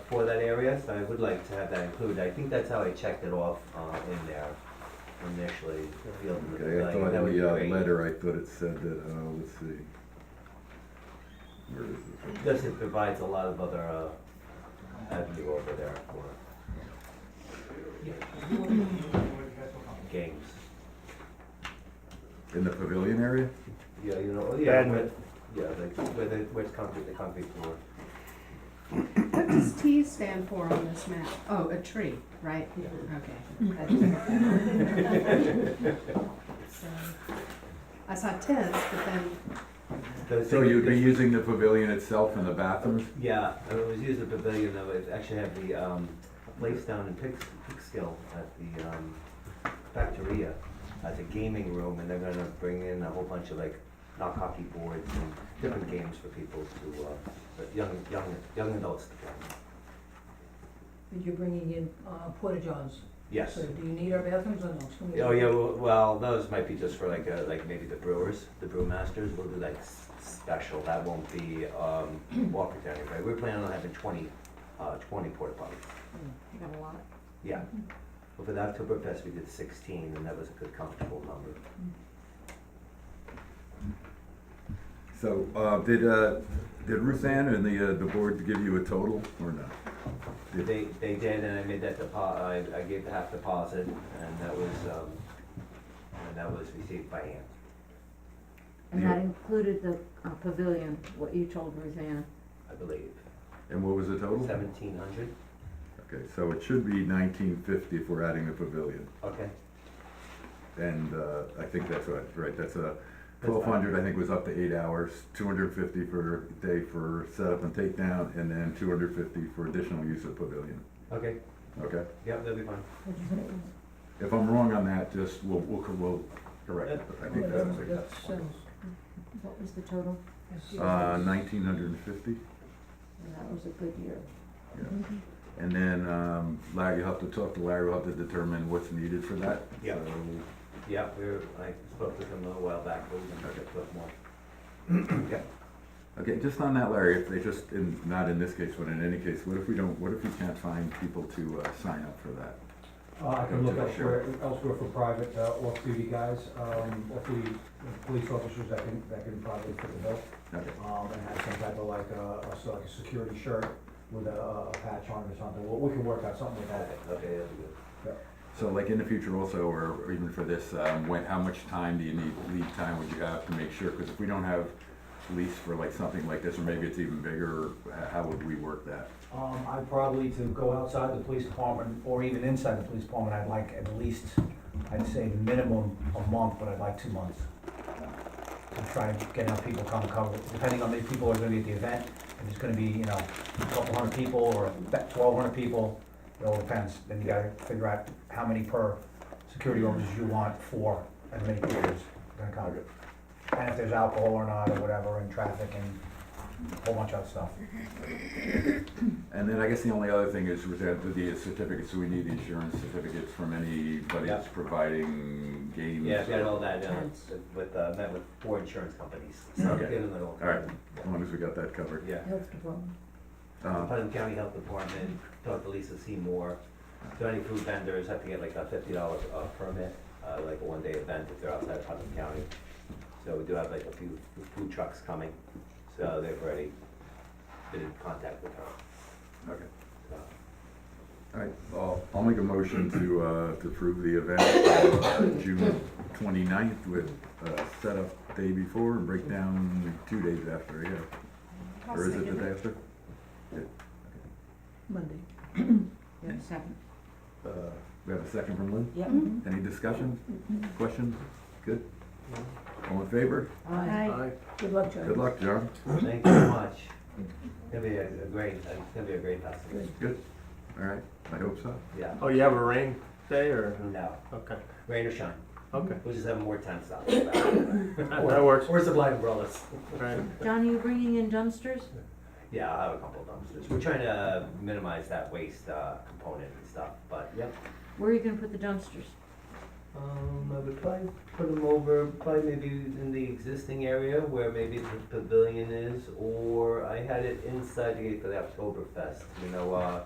for that area, so I would like to have that included. I think that's how I checked it off, uh, in there initially, the field. of Okay, I value. thought That would in be the uh, great. letter, I thought it said that, uh, let's see. Where is it? This it provides a lot of other, uh, avenue over there for games. In the pavilion area? Yeah, you know, yeah, And- where, yeah, like, where the, where it's comfy, the comfy floor. What does T stand for on this map? Oh, a tree, right? Okay. So, I saw tents, but then, Those So things- you'd be using the pavilion itself and the bathrooms? Yeah, I mean, it was used a pavilion, though, it actually had the, um, place down in Pix, Pixkill at the, um, Factoria as a gaming room, and they're gonna bring in a whole bunch of like knock hockey boards and different games for people to, uh, but young, young, young adults to play. But you're bringing in uh, porta johns. Yes. So do you need our bathrooms or no? It's gonna be- Oh, yeah, well- well, those might be just for like, uh, like maybe the brewers, the brewmasters, we'll do like s- special, that won't be, um, Walker County, right? We're planning on having twenty, uh, twenty porta potties. Hmm, You got a lot. Hmm. Yeah. Well, for the Oktoberfest, we did sixteen, and that was a good comfortable number. So, uh, did, uh, did Ruth Ann and the, uh, the board give you a total or not? Yeah. They, they did, and I made that depo, I, I gave the half deposit, and that was, um, and that was received by hand. And Yeah. that included the uh, pavilion, what you told Rosanna. I believe, And what was the total? seventeen hundred, Okay, so it should be nineteen fifty if we're adding the pavilion. okay, And, uh, I think that's right, right, that's fine. a, twelve hundred, I think, was up to eight hours, two hundred fifty for day for setup and takedown, and then two hundred fifty for additional use of pavilion, okay, okay? yep, that'll be fine. What'd you say? If I'm wrong on that, just, we'll, we'll, we'll correct it, but I think that's Well, that sounds- What was the total? that's- Uh, nineteen hundred and fifty, And that was a good year. yeah. And then, um, Larry, you'll have to talk to Larry, we'll have to determine what's needed for that. Yeah. So, Yeah, we were, I spoke with him a little while back, but we can pick up more. Yeah, Okay, just on that, Larry, if they just, in, not in this case, but in any case, what if we don't, what if we can't find people to, uh, sign up for that? Uh, I can look elsewhere, elsewhere for private uh, off-duty guys, um, off-duty police officers that can, that can probably fit the bill. Okay, Um, and have some type of like, uh, a- so like a security shirt with a, a patch on it or something. We, we can work out something with that. okay, that'll be good. so like in the future also, or or even for this, um, when, how much time do you need, lead time would you have to make sure? Because if we don't have lease for like something like this, or maybe it's even bigger, h- how would we work that? Um, I'd probably to go outside the police department or even inside the police department, I'd like at least, I'd say minimum a month, but I'd like two months. To try and get enough people come cover, depending on how many people are gonna be at the event, if it's gonna be, you know, a couple hundred people or twelve hundred people, it all depends. Then you gotta figure out how many per security officers you want for as many people as gonna come. And if there's alcohol or not or whatever and traffic and a whole bunch of other stuff. And then I guess the only other thing is with that, with the certificates, so we need insurance certificates from anybody that's providing games. Yeah, we had all that, uh, Tents. with, uh, met with four insurance companies, so Okay. get them all. All right. As long as wegot that covered. Yeah. Health department. Um, Putnam County Health Department, talked to Lisa Seymour. So any food vendors have to get like a fifty dollar uh, permit, uh, like a one day event if they're outside of Putnam County. So we do have like a few food trucks coming, so they've already been in contact with her. Okay. So, All right, I'll, I'll make a motion to, uh, to approve the event, uh, June twenty-ninth with, uh, setup day before and breakdown two days after, yeah. I'll Or is it the second day it. after? Monday. You have a second? Uh, we have a second from Lynn? Yep. Any discussion? Questions? Good? All in favor? Aye. Good luck, Charlie. Good luck, John. Thank you very much. It's gonna be a a great, it's gonna be a great festival, Good? All right, I hope so. yeah. Oh, you have a rain day or? No, Okay, rain or shine, okay. we'll just have more tents out. Mm-hmm. That that works, Or supply umbrellas. right. John, you bringing in dumpsters? Yeah, I'll have a couple of dumpsters. We're trying to minimize that waste uh, component and stuff, but yeah. Where are you gonna put the dumpsters? Um, I would probably put them over, probably maybe in the existing area where maybe the pavilion is, or I had it inside the gate for the Oktoberfest, you know, uh,